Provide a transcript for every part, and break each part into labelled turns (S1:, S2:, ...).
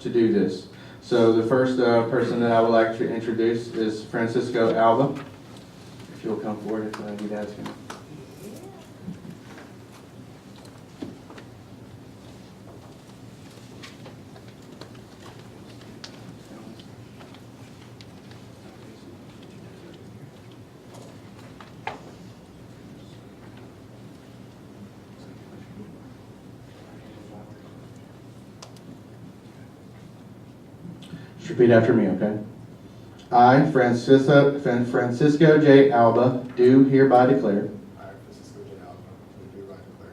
S1: to do this. So the first uh, person that I would like to introduce is Francisco Alba. If you'll come forward if uh, you'd ask him. Just repeat after me, okay? I, Francisco, Fran- Francisco J. Alba, do hereby declare
S2: I, Francisco J. Alba, do hereby declare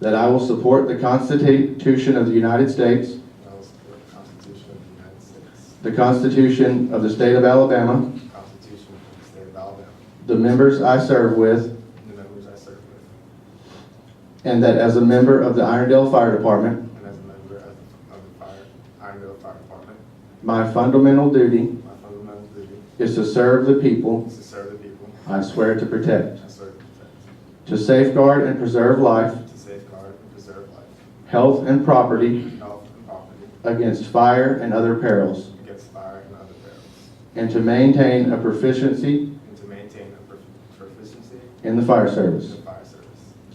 S1: that I will support the Constitution of the United States,
S2: that I will support the Constitution of the United States,
S1: the Constitution of the State of Alabama,
S2: the Constitution of the State of Alabama,
S1: the members I serve with,
S2: and the members I serve with,
S1: and that as a member of the Irondale Fire Department,
S2: and as a member of the- of the Fire, Irondale Fire Department,
S1: my fundamental duty
S2: my fundamental duty
S1: is to serve the people
S2: is to serve the people
S1: I swear to protect,
S2: and serve and protect,
S1: to safeguard and preserve life,
S2: to safeguard and preserve life,
S1: health, and property
S2: health, and property
S1: against fire and other perils,
S2: against fire and other perils,
S1: and to maintain a proficiency
S2: and to maintain a prof- proficiency
S1: in the fire
S2: in
S1: service.
S2: the fire service.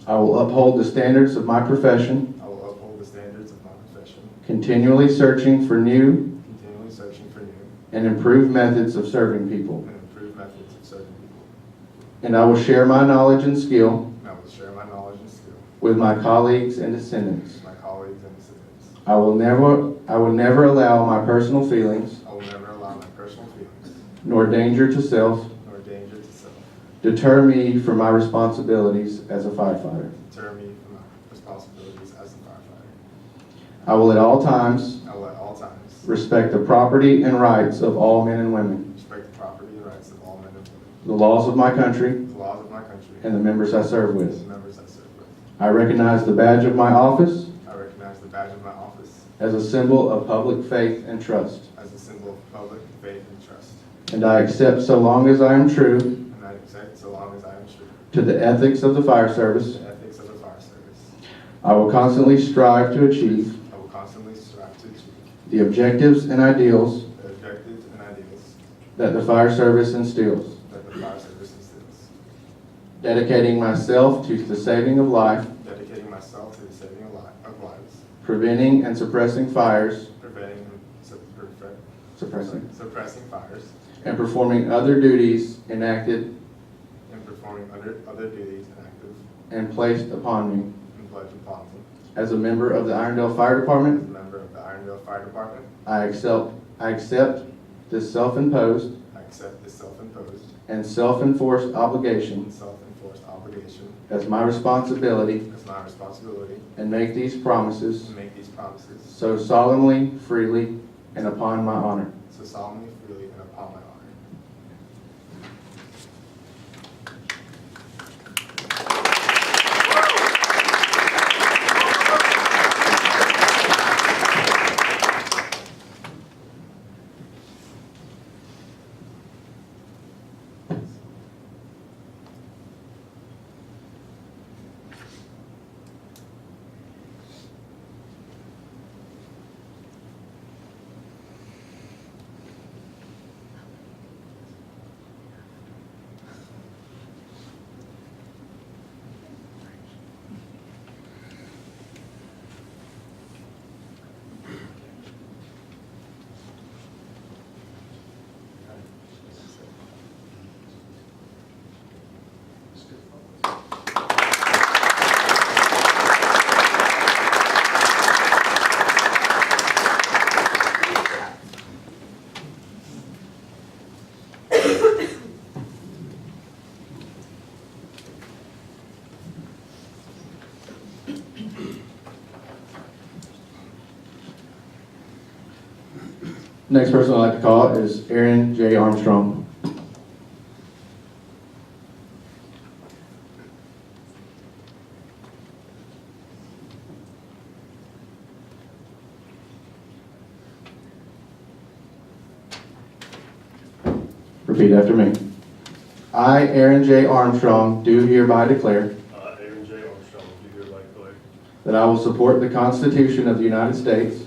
S1: I will uphold the standards of my profession,
S2: I will uphold the standards of my profession,
S1: continually searching for new
S2: continually searching for new
S1: and improved methods of serving people.
S2: and improved methods of serving people.
S1: And I will share my knowledge and skill
S2: And I will share my knowledge and skill
S1: with my colleagues and descendants.
S2: with my colleagues and students.
S1: I will never, I will never allow my personal feelings
S2: I will never allow my personal feelings
S1: nor danger to self
S2: nor danger to self
S1: deter me from my responsibilities as a firefighter.
S2: deter me from my responsibilities as a firefighter.
S1: I will at all times
S2: I will at all times
S1: respect the property and rights of all men and women,
S2: respect the property and rights of all men and women,
S1: the laws of my country,
S2: the laws of my country,
S1: and the members I serve
S2: and the
S1: with.
S2: members I serve with.
S1: I recognize the badge of my office
S2: I recognize the badge of my office
S1: as a symbol of public faith and trust,
S2: as a symbol of public faith and trust,
S1: and I accept so long as I am true
S2: and I accept so long as I am true
S1: to the ethics of the fire service.
S2: to the ethics of the fire service.
S1: I will constantly strive to achieve
S2: I will constantly strive to achieve
S1: the objectives and ideals
S2: the objectives and ideals
S1: that the fire service instills,
S2: that the fire service instils.
S1: dedicating myself to the saving of life,
S2: dedicating myself to the saving of li- of lives,
S1: preventing and suppressing fires,
S2: preventing and sup- perfect-
S1: suppressing,
S2: suppressing fires,
S1: and performing other duties enacted
S2: and performing other other duties enacted
S1: and placed upon me
S2: and pledged upon me
S1: as a member of the Irondale Fire
S2: as a
S1: Department.
S2: member of the Irondale Fire Department.
S1: I accept, I accept this self-imposed
S2: I accept this self-imposed
S1: and self-enforced obligation
S2: and self-enforced obligation
S1: as my responsibility
S2: as my responsibility
S1: and make these
S2: to
S1: promises
S2: make these promises
S1: so solemnly, freely, and upon my honor.
S2: so solemnly, freely, and upon my honor.
S1: Next person I'd like to call is Aaron J. Armstrong. Repeat after me. I, Aaron J. Armstrong, do hereby declare
S3: I, Aaron J. Armstrong, do hereby declare
S1: that I will support the Constitution of the United States,